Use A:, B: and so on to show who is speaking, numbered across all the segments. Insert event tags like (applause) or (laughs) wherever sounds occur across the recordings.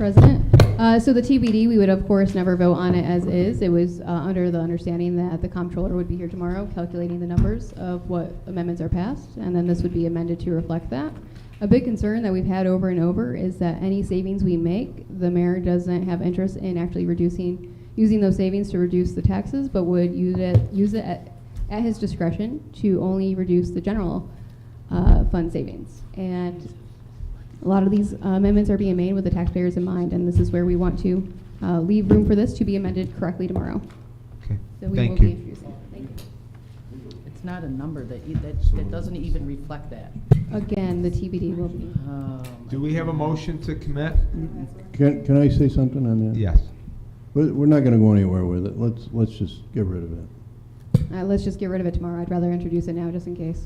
A: President. Uh, So the TBD, we would of course never vote on it as is. It was uh, under the understanding that the comptroller would be here tomorrow calculating the numbers of what amendments are passed, and then this would be amended to reflect that. A big concern that we've had over and over is that any savings we make, the mayor doesn't have interest in actually reducing, using those savings to reduce the taxes, but would use it, use it at at his discretion to only reduce the general uh, fund savings. And a lot of these uh, amendments are being made with the taxpayers in mind, and this is where we want to uh, leave room for this to be amended correctly tomorrow.
B: Okay,
A: So we will
B: thank
A: be
B: you.
A: introducing. it. Thank you.
C: It's not a number that, e- that,
B: So-
C: that doesn't even reflect that.
A: Again, the TBD will be.
C: Oh,
B: Do
C: my
B: we have a
C: God.
B: motion to commit?
A: Mm-hmm.
D: Can, can I say something on that?
B: Yes.
D: We're, we're not gonna go anywhere with it. Let's, let's just get rid of it.
A: Uh, Let's just get rid of it tomorrow. I'd rather introduce it now, just in case.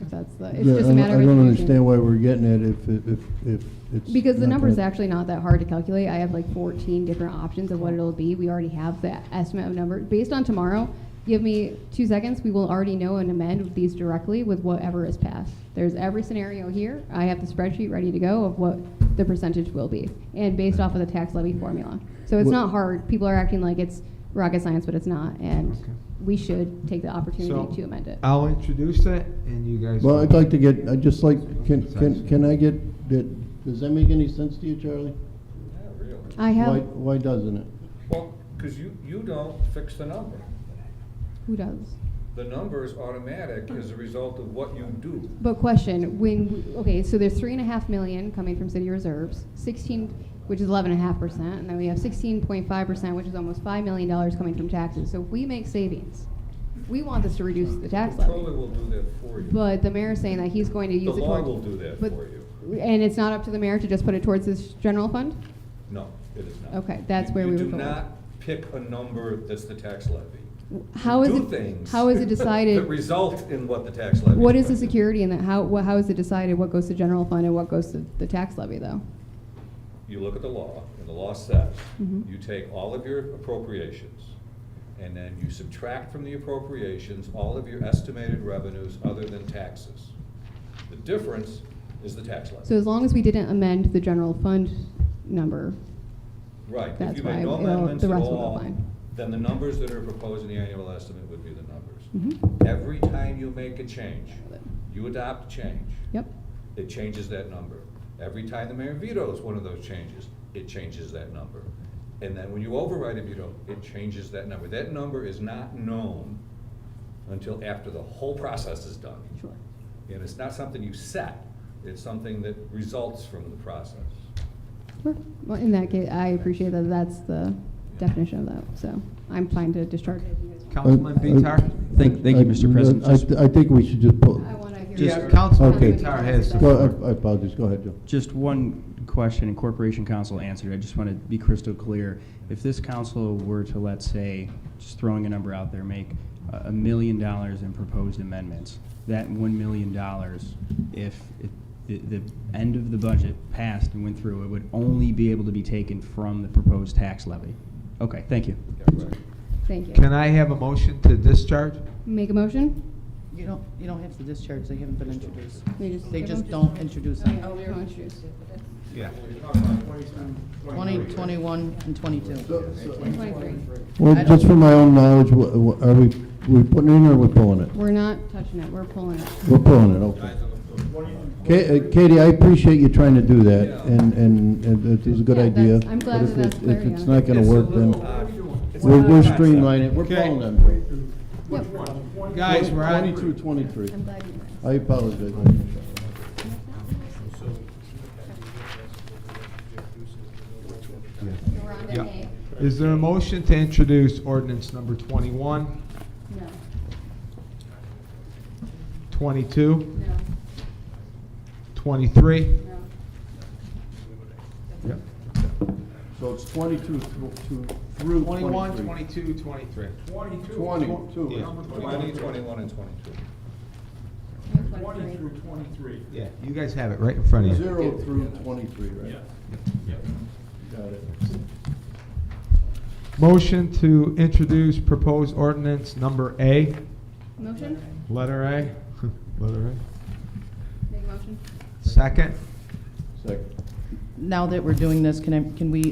A: If that's the, it's
D: Yeah,
A: just
D: I
A: a matter of.
D: don't- I
A: introducing.
D: don't understand why we're getting it if, it- if, if it's.
A: Because the
D: not
A: number's
D: gonna-
A: actually not that hard to calculate. I have like 14 different options of what it'll be. We already have the estimate of number. Based on tomorrow, give me two seconds, we will already know and amend these directly with whatever is passed. There's every scenario here. I have the spreadsheet ready to go of what the percentage will be, and based off of the tax levy formula. So it's
D: What-
A: not hard. People are acting like it's rocket science, but it's not, and
B: Okay.
A: we should take the
B: So
A: opportunity to amend it.
B: I'll introduce it and you guys.
D: Well, I'd
B: will-
D: like to get, I'd just like, can, can, can I get, did- does that make any sense to you, Charlie?
A: I
D: Why,
A: have,
D: why doesn't it?
E: Well, because you, you don't fix the number.
A: who does?
E: The number is automatic as a result of what you do.
A: But question, when, okay, so there's three and a half million coming from city reserves, sixteen, which is eleven and a half percent, and then we have sixteen point five percent, which is almost five million dollars coming from taxes. So if we make savings, we want this to reduce the tax
E: Controller
A: levy.
E: will do that for you.
A: But the mayor's saying that he's going to
E: The
A: use it
E: law
A: towards.
E: will do that
A: but-
E: for you.
A: And it's not up to the mayor to just put it towards this general fund?
E: No, it is not.
A: Okay, that's
E: You-
A: where we would
E: You do
A: go.
E: not pick a number that's the tax levy.
A: How is
E: You
A: it?
E: do things
A: How is it
E: (laughs) That
A: decided?
E: result in what the tax levy.
A: What is the
E: going to be.
A: security in that? How, wha- how is it decided what goes to general fund and what goes to the tax levy, though?
E: You look at the law, and the law says,
A: Mhm.
E: you take all of your appropriations, and then you subtract from the appropriations all of your estimated revenues other than taxes. The difference is the tax levy.
A: So as long as we didn't amend the general fund number,
E: Right, if
A: That's
E: you
A: why
E: make no
A: it'll-
E: amendments
A: the
E: at
A: rest will go
E: all,
A: fine.
E: then the numbers that are proposed in the annual estimate would be the numbers.
A: mhm,
E: Every time you make a change, you adopt a change,
A: yep,
E: it changes that number. Every time the mayor vetoes one of those changes, it changes that number. And then when you override a veto, it changes that number. That number is not known until after the whole process is done.
A: sure.
E: And it's not something you set, it's something that results from the process.
A: Sure. Well, in that case, I appreciate that that's the definition of that, so I'm fine to discharge.
B: Councilman
D: I- I-
B: Bitar?
D: uh,
F: Thank, thank you, Mr. President.
D: I,
F: Just,
D: I think we should just pull,
A: I want to hear.
F: Just-
A: your-
B: Councilman
D: Okay.
B: Bitar has the
D: go,
B: floor.
D: I- I apologize, go ahead, Joe.
F: just one question, and Corporation Council answered, I just want to be crystal clear. If this council were to, let's say, just throwing a number out there, make a a million dollars in proposed amendments, that one million dollars, if it- the, the end of the budget passed and went through, it would only be able to be taken from the proposed tax levy. Okay, thank you.
E: Yeah, right.
A: Thank you.
B: Can I have a motion to discharge?
A: Make a motion?
C: You don't, you don't have to discharge, they haven't been introduced.
A: We just-
C: They just don't introduce them.
A: Oh, yeah, I'll introduce.
B: Yeah.
C: 20, 21, and 22.
A: Twenty-three.
D: Well,
C: I don't-
D: just for my own knowledge, wha- wha- are we, we putting it in or we pulling it?
A: We're not touching it, we're pulling it.
D: We're pulling it, okay. Ka- uh, Katie, I appreciate you trying to do that, and, and and it was a good
A: Yeah,
D: idea.
A: that's- I'm glad
D: but if
A: that
D: it-
A: that's clear,
D: If it's uh,
A: yeah.
D: not gonna
E: It's a
D: work, then
E: little odd. It's
D: we're,
E: not
D: we're
E: a concept.
D: streamlining it, we're pulling them.
A: Yep,
B: Guys, we're on.
D: Twenty-two, twenty-three.
A: I'm glad you were.
D: I apologize.
A: So we're on to
B: Yeah.
A: A?
B: Is there a motion to introduce ordinance number 21,
A: No,
B: 22,
A: no,
B: 23?
A: no.
B: Yep.
D: So it's twenty-two through
B: 21, 22, 23.
D: Twenty-two.
B: Yeah.
E: Twenty, twenty-one, and twenty-two.
A: Twenty-three.
B: Yeah, you guys have it right in front of you.
D: Zero through twenty-three, right? Got it.
B: Motion to introduce proposed ordinance number A,
A: Motion?
B: letter A, (laughs) letter A.
A: Make a motion?
B: Second,
D: Second.
C: now that we're doing this, can I, can we